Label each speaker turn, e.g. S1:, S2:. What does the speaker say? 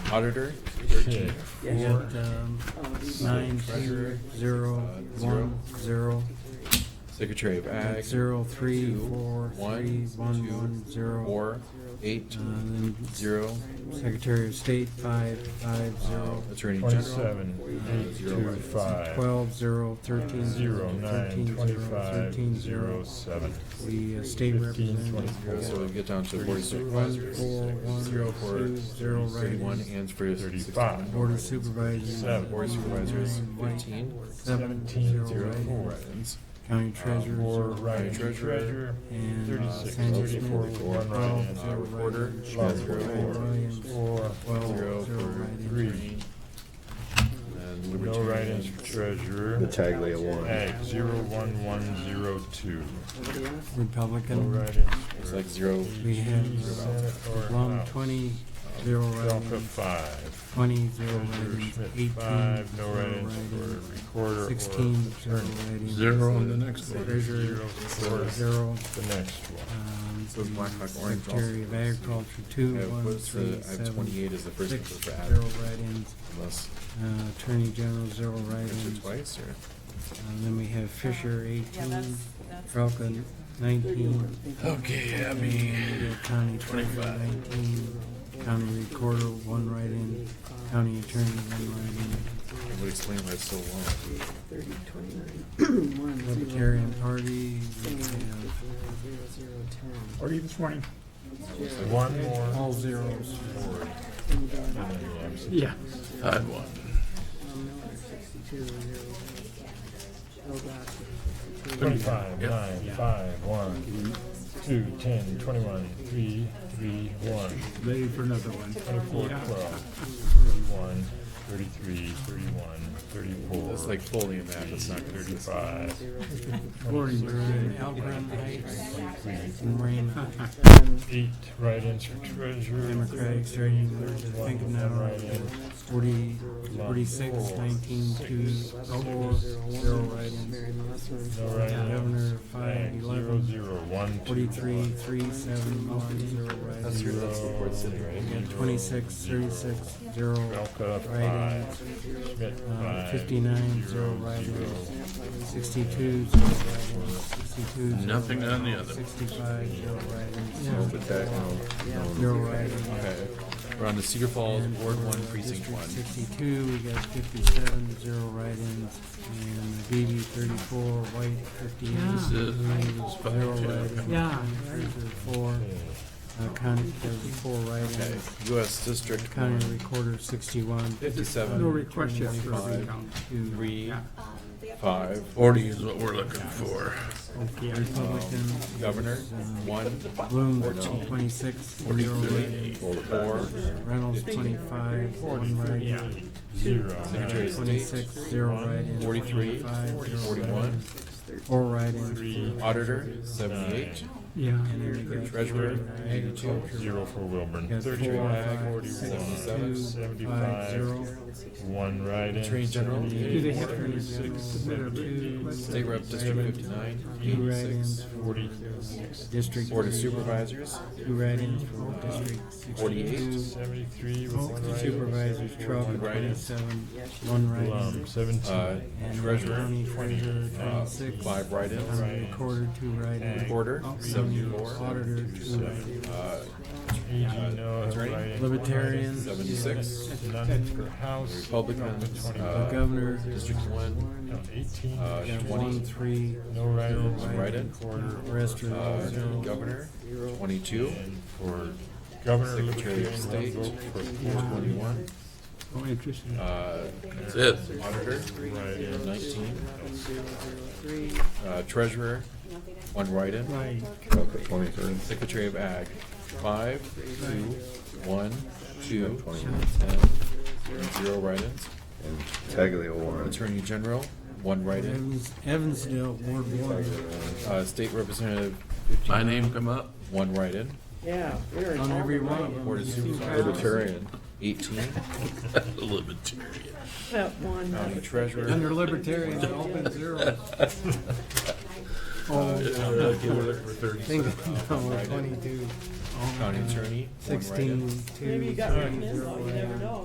S1: Auditor?
S2: Okay, four, um, nine, zero, zero,
S1: Uh,
S2: one, zero,
S1: Secretary of Ag?
S2: zero, three,
S1: Two,
S2: four,
S1: one,
S2: three, one,
S1: two,
S2: one, zero.
S1: Four, eight,
S2: Uh, then
S1: zero,
S2: Secretary of State, five, five,
S1: uh,
S2: zero,
S1: Attorney General?
S3: Twenty-seven, eight, two, five,
S2: twelve, zero, thirteen,
S3: zero, nine,
S2: thirteen, zero,
S3: twenty-five,
S2: thirteen,
S3: zero,
S2: zero.
S3: seven.
S2: The uh, state
S3: Fifteen,
S2: representative,
S1: So we get down to board of
S2: one,
S1: supervisors,
S2: four, one,
S1: zero for
S2: two, zero,
S1: thirty-one
S2: write-ins.
S1: and for
S3: Thirty-five.
S1: sixty-one.
S2: Board of Supervisors.
S3: Seven.
S1: Board of Supervisors,
S2: nine, white,
S1: fifteen,
S2: Seven,
S3: Seventeen,
S2: zero,
S1: zero, four
S2: write-ins.
S1: write-ins.
S2: County treasurer,
S3: Four
S2: zero,
S3: right-in
S1: Treasurer.
S3: treasurer,
S2: And, uh,
S3: thirty-six,
S2: Sanders
S3: thirty-four
S2: Smith.
S3: with one
S2: Twelve,
S1: Uh,
S3: right-in.
S1: Recorder, she
S3: Love
S1: has zero
S3: four.
S1: for-
S3: Four,
S2: twelve,
S1: zero
S2: zero,
S1: for
S2: write-ins.
S1: three. And
S3: no
S1: Libertarian.
S3: write-ins for treasurer.
S4: The Taglia one.
S3: Ag, zero, one, one, zero, two. No
S2: Republican,
S3: write-ins
S1: It's
S3: for
S1: like zero,
S2: we have,
S3: Senate or
S2: Blum,
S3: House.
S2: twenty,
S1: uh,
S2: zero
S3: Delta,
S2: write-ins.
S3: five.
S2: Twenty, zero
S3: Treasurer
S2: write-ins.
S3: Schmidt,
S2: Eighteen,
S3: five, no
S2: zero
S3: write-ins
S2: write-ins.
S3: for recorder or
S2: Sixteen, zero
S3: attorney.
S2: write-ins.
S5: Zero on the next one.
S2: Treasurer,
S3: Zero for
S2: zero.
S3: the next one.
S2: Um,
S1: So black, black, orange also.
S2: Secretary of Agriculture, two,
S1: I
S2: one,
S1: put the,
S2: three,
S1: I have
S2: seven,
S1: twenty-eight as the first
S2: six,
S1: number for
S2: zero
S1: ad,
S2: write-ins.
S1: unless
S2: Uh, Attorney General, zero
S1: I mentioned
S2: write-ins.
S1: twice, or?
S2: And then we have Fisher,
S6: Yeah,
S2: eighteen,
S6: that's, that's.
S2: Falcon, nineteen,
S1: Okay, I
S2: Alameda County Treasurer, nineteen, County Recorder, one write-in, County Attorney, one
S1: It would explain why it's so long.
S2: write-in, Libertarian Party, we have
S5: Are you this morning?
S3: One more.
S2: all zeros.
S5: Yeah. I had one.
S3: Thirty-five, nine, five, one, two, ten, twenty-one, three, three, one,
S5: Ready for another one.
S3: twenty-four, twelve, thirty-one, thirty-three, thirty-one, thirty-four.
S1: It's like fully a map, it's not gonna be.
S3: Thirty-five.
S5: Morning,
S2: We're in Algren Heights, Marina,
S3: Eight write-ins for treasurer.
S2: Democratic Trading, I think of now, forty, forty-six, nineteen, two, four, zero write-ins.
S3: No write-ins.
S2: Governor, five,
S3: Ag, Zero,
S2: eleven,
S3: zero, one, two,
S2: forty-three,
S3: one.
S2: three, seven, one, zero
S1: That's your,
S2: write-ins.
S1: that's the board sitting, right?
S2: We got twenty-six, thirty-six, zero
S3: Belka, five.
S2: write-ins.
S3: Schmidt,
S2: Uh,
S3: five.
S2: fifty-nine,
S3: zero,
S2: zero write-ins.
S3: zero.
S2: Sixty-two, zero write-ins. Sixty-two, zero
S5: Nothing on the other.
S2: Sixty-five, zero write-ins.
S1: No, but that, no, no.
S2: Zero write-ins.
S1: Okay, we're on to Cedar Falls,
S2: And
S1: Ward
S2: for
S1: One, Precinct
S2: District
S1: One.
S2: Sixty-two, we got fifty-seven, zero write-ins, and BB thirty-four, White
S5: This
S2: fifty-eight.
S5: is
S2: Zero
S5: five,
S2: write-ins.
S5: yeah.
S2: Fraser, four, uh, county, there was four
S1: Okay,
S2: write-ins,
S1: US District
S2: county
S1: One,
S2: recorder sixty-one,
S5: No
S1: fifty-seven,
S5: request yet for a recount.
S2: two
S1: three, five,
S5: Forty is what we're looking for.
S2: Republican,
S1: Um,
S2: uh,
S1: Governor, one,
S2: Bloom twenty-six, zero write-ins,
S1: four,
S2: Reynolds twenty-five, one write-in,
S3: Zero.
S1: Secretary of State,
S2: twenty-six, zero write-ins,
S1: 43,
S2: twenty-five, zero
S1: forty-one,
S2: write-ins, four write-ins,
S3: Three.
S1: Auditor, seventy-eight,
S5: Yeah.
S2: And then we got
S1: Treasurer,
S2: agriculture.
S3: Zero for
S2: We
S3: Wilburn.
S2: got
S3: Thirty-one,
S2: four,
S3: forty-one,
S2: two, five,
S3: seventy-five,
S2: zero.
S3: one write-in.
S1: Attorney General,
S5: Do they
S3: Seventy-eight,
S5: have to
S3: thirty-six,
S5: submit a written
S2: Two.
S5: request?
S1: State Rep District fifty-nine,
S2: Two
S1: eighty-six,
S2: write-ins,
S3: forty,
S2: district.
S1: Board of Supervisors,
S2: Two write-ins for district sixty-two.
S3: seventy-three with one write-in.
S2: Supervisors, twelve and twenty-seven, one
S3: Blum,
S2: write-in.
S1: uh,
S3: seventeen.
S2: And
S1: Treasurer,
S2: county treasurer,
S1: uh,
S2: twenty-six.
S1: five write-ins,
S2: County recorder, two write-ins.
S1: Recorder,
S2: County
S1: seventy-four,
S2: Auditor, two write-ins.
S1: uh,
S3: AG, no
S1: Attorney?
S3: write-in.
S2: Libertarians.
S1: Seventy-six.
S3: None for House.
S1: Republicans,
S2: The
S1: uh,
S2: governor,
S1: District one,
S3: No, Eighteen.
S1: Uh,
S2: got
S1: twenty.
S2: one, three,
S3: No write-ins.
S2: Zero
S1: write-in.
S3: Quarter.
S2: rest
S1: uh,
S2: are zero.
S1: Governor, twenty-two,
S3: And for governor,
S1: Secretary of
S3: Libertarian,
S1: State,
S3: one vote for four.
S1: twenty-one,
S5: Oh, interesting.
S1: uh,
S5: That's it.
S1: Auditor,
S3: Write-ins.
S1: nineteen, uh, Treasurer, one write-in,
S5: Right.
S4: Up at twenty-three.
S1: Secretary of Ag, five, two, one, two,
S4: Twenty-nine.
S1: ten, zero write-ins.
S4: And Taglia one.
S1: Attorney General, one write-in,
S2: Evans, Evansdale, Ward one,
S1: uh, State Representative,
S5: My name come up?
S1: one write-in,
S6: Yeah.
S2: on every one of them.
S1: Board of
S2: you see
S1: Supervisors,
S2: cows.
S1: Libertarian, eighteen,
S5: Libertarian.
S6: That one.
S1: County Treasurer,
S2: Under libertarian, open zero. Oh, think, no, Oh, twenty-two,
S1: County Attorney, one write-in.
S2: sixteen, two.
S6: Maybe you got
S2: three,
S6: one in,
S2: zero,
S6: though, you never
S2: yeah.
S6: know.